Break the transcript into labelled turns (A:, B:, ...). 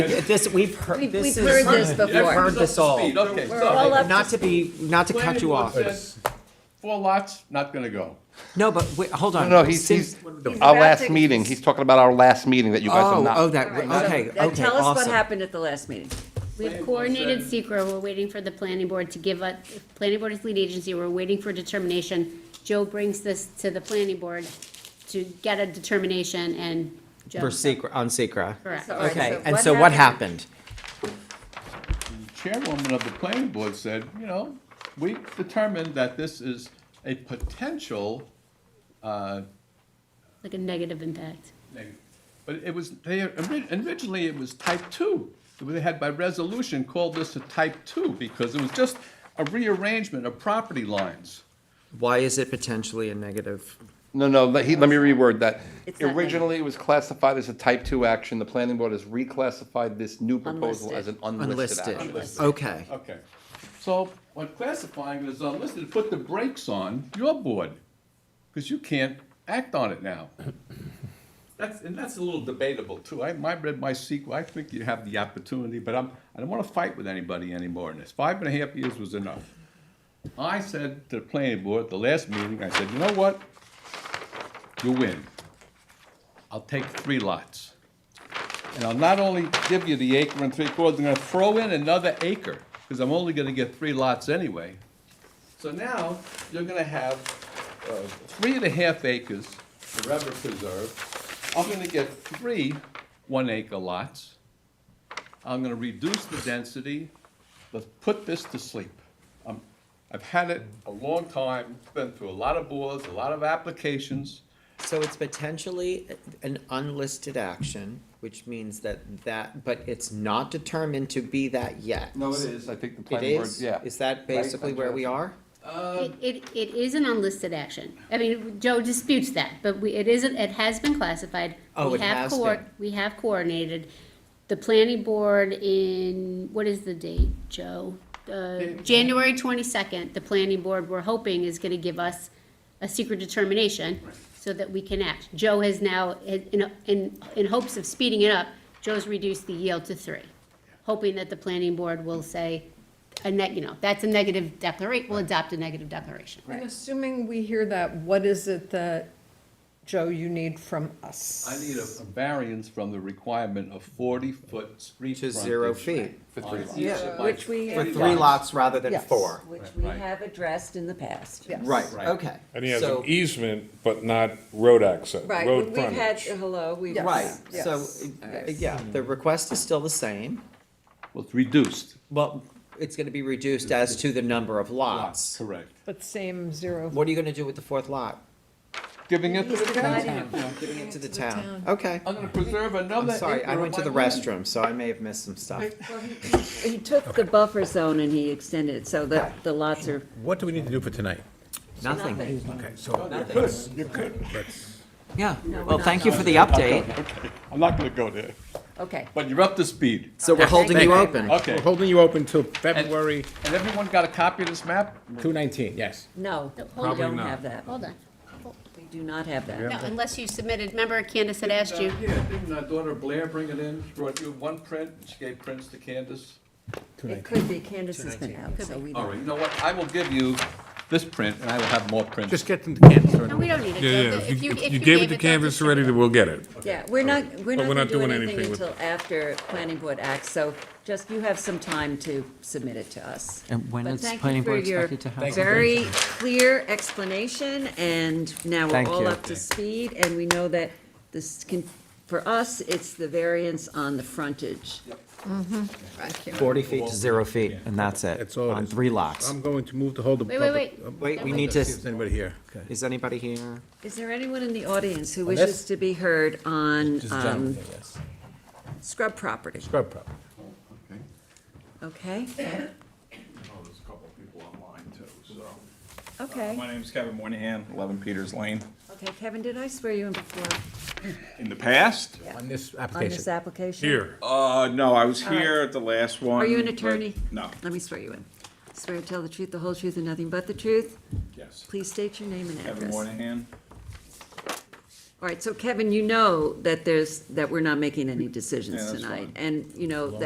A: This, we've heard,
B: We've-
A: this
B: we've heard
A: is,
B: this
A: I've
B: before.
A: heard this all.
C: Okay,
B: We're all
C: so.
B: up
A: Not
B: to
A: to be, not to cut you off.
C: Four lots, not gonna go.
A: No, but, wait, hold on.
D: No, he's,
A: Since-
D: he's,
B: He's
D: our
B: about
D: last
B: to-
D: meeting, he's talking about our last meeting that you guys
A: Oh,
D: are
A: oh,
D: not.
A: that,
B: All right, so
A: okay,
B: then
A: okay,
B: Tell us what
A: awesome.
B: happened at the last meeting.
E: We've coordinated secret. we're waiting for the planning board to give us, planning board is lead agency, we're waiting for determination. Joe brings this to the planning board to get a determination and Joe.
A: For secret, on secret.
E: Correct.
B: So, all right,
A: Okay, and so what happened?
C: The Chairwoman of the planning board said, you know, we determined that this is a potential, uh,
E: Like a negative impact.
C: neg- but it was, they, ori- originally it was type two. They had by resolution called this a type two because it was just a rearrangement of property lines.
A: Why is it potentially a negative?
D: No, no, let he, let me reword that.
B: It's not negative.
D: Originally, it was classified as a type two action. The planning board has reclassified this new proposal as an unlisted
A: Unlisted,
D: action.
A: okay.
C: Okay. So when classifying is unlisted, put the brakes on your board, because you can't act on it now. That's, and that's a little debatable too. I, I read my sequel, I think you have the opportunity, but I'm, I don't wanna fight with anybody anymore in this. Five and a half years was enough. I said to the planning board at the last meeting, I said, you know what? You win. I'll take three lots. And I'll not only give you the acre and three quarters, I'm gonna throw in another acre, because I'm only gonna get three lots anyway. So now, you're gonna have, uh, three and a half acres forever preserved. I'm gonna get three one acre lots. I'm gonna reduce the density, let's put this to sleep. Um, I've had it a long time, been through a lot of boards, a lot of applications.
A: So it's potentially an unlisted action, which means that that, but it's not determined to be that yet.
D: No, it is. I think the
A: It
D: planning board,
A: is?
D: yeah.
A: Is that basically where we are?
B: Um,
E: It, it, it is an unlisted action. I mean, Joe disputes that, but we, it isn't, it has been classified.
A: Oh,
E: We
A: it
E: have
A: has
E: coor-
A: been.
E: We have coordinated. The planning board in, what is the date, Joe? Uh, January twenty-second, the planning board, we're hoping, is gonna give us a secret determination so that we can act. Joe has now, in, in, in hopes of speeding it up, Joe's reduced the yield to three, hoping that the planning board will say, a neg, you know, that's a negative declaration, will adopt a negative declaration.
F: And assuming we hear that, what is it that, Joe, you need from us?
C: I need a a variance from the requirement of forty-foot street
A: To
C: frontage.
A: zero feet.
D: For
C: on
D: three
C: each
D: lots.
C: of my-
B: Which we
A: For
B: have
A: three
B: done,
A: lots rather than
F: Yes.
A: four?
B: which we
C: Right.
B: have addressed in the past.
F: Yes.
A: Right,
C: Right.
A: okay.
G: And he has
A: So-
G: an e- easement, but not road access,
B: Right,
G: road
B: we've had, uh,
G: frontage.
B: hello, we've.
F: Yes.
A: Right, so,
F: Yes.
A: uh, yeah, the request is still the same.
C: Well, it's reduced.
A: Well, it's gonna be reduced as to the number of lots.
C: Correct.
F: But same zero.
A: What are you gonna do with the fourth lot?
C: Giving it to
B: He's
C: the
B: dividing
C: town.
B: it.
A: Giving it to the town. Oh, Okay.
C: I'm gonna preserve
A: I'm
C: another acre
A: sorry, I
C: of
A: went to
C: my
A: the
C: land.
A: restroom, so I may have missed some stuff.
B: He took the buffer zone and he extended it, so that the lots are.
H: What do we need to do for tonight?
A: Nothing.
H: Okay, so.
A: Yeah, well, thank you for the update.
C: I'm not gonna go there,
B: Okay.
C: but you're up to speed.
A: So we're holding you open.
C: Okay.
H: We're holding you open till
C: And-
H: February
C: And everyone got a copy of this map?
H: 219, yes.
B: No, we
E: Probably
B: don't
H: not.
B: have that.
E: Hold on.
B: We do not have that.
E: No, unless you submitted, remember Candace had asked you,
C: Uh, Yeah, didn't my daughter Blair bring it in? She brought you one print, she gave prints to Candace.
B: It could be, Candace has been out, so we
C: All right,
B: don't.
C: you know what, I will give you this print, and I will have more prints.
H: Just get them to Candace.
E: no, we don't need it.
G: Yeah, yeah,
E: If
G: if you,
E: if
G: if you gave it to
E: they'll
G: Canvas
E: distribute
G: already,
E: it.
G: then we'll get it.
B: Yeah, we're not, we're not
G: But we're
B: gonna
G: not
B: do
G: doing
B: anything
G: anything with-
B: until after planning board acts, so just, you have some time to submit it to us.
A: And when
B: But
A: is
B: thank you
A: planning
B: for
A: board
B: your
A: expected to have
B: Very clear explanation, and now we're
A: Thank
B: all
A: you.
B: up to speed, and we know that this can, for us, it's the variance on the frontage.
A: Forty feet to zero feet, and that's it,
H: That's all it
A: on
H: is.
A: three lots.
H: I'm going to move to hold the.
E: Wait, wait,
H: public-
E: wait.
A: Wait, we
E: That
A: need
E: was-
A: to,
H: Is anybody here? Okay.
A: is anybody here?
B: Is there anyone in the audience who
H: On
B: wishes
H: this?
B: to be heard on
H: Just
B: um,
H: down, I guess.
B: scrub property?
H: Scrub problem.
B: Okay,
I: Oh, There's a couple of people online too, so.
B: okay.
I: My name's Kevin Moynihan, 11 Peters Lane.
B: Okay, Kevin, did I swear you in before
I: In the past?
H: On this
B: on this
H: application.
B: application?
G: Here.
I: Uh, no, I was here at the last one.
B: Are you an
I: but-
B: attorney?
I: No,
B: Let me swear you in. Swear to tell the truth, the whole truth, and nothing but the truth.
I: yes.
B: Please state your name and
I: Kevin
B: address.
I: Moynihan,
B: All right, so Kevin, you know that there's, that we're not making any decisions
I: that's
B: tonight.
I: fine.
B: And, you know,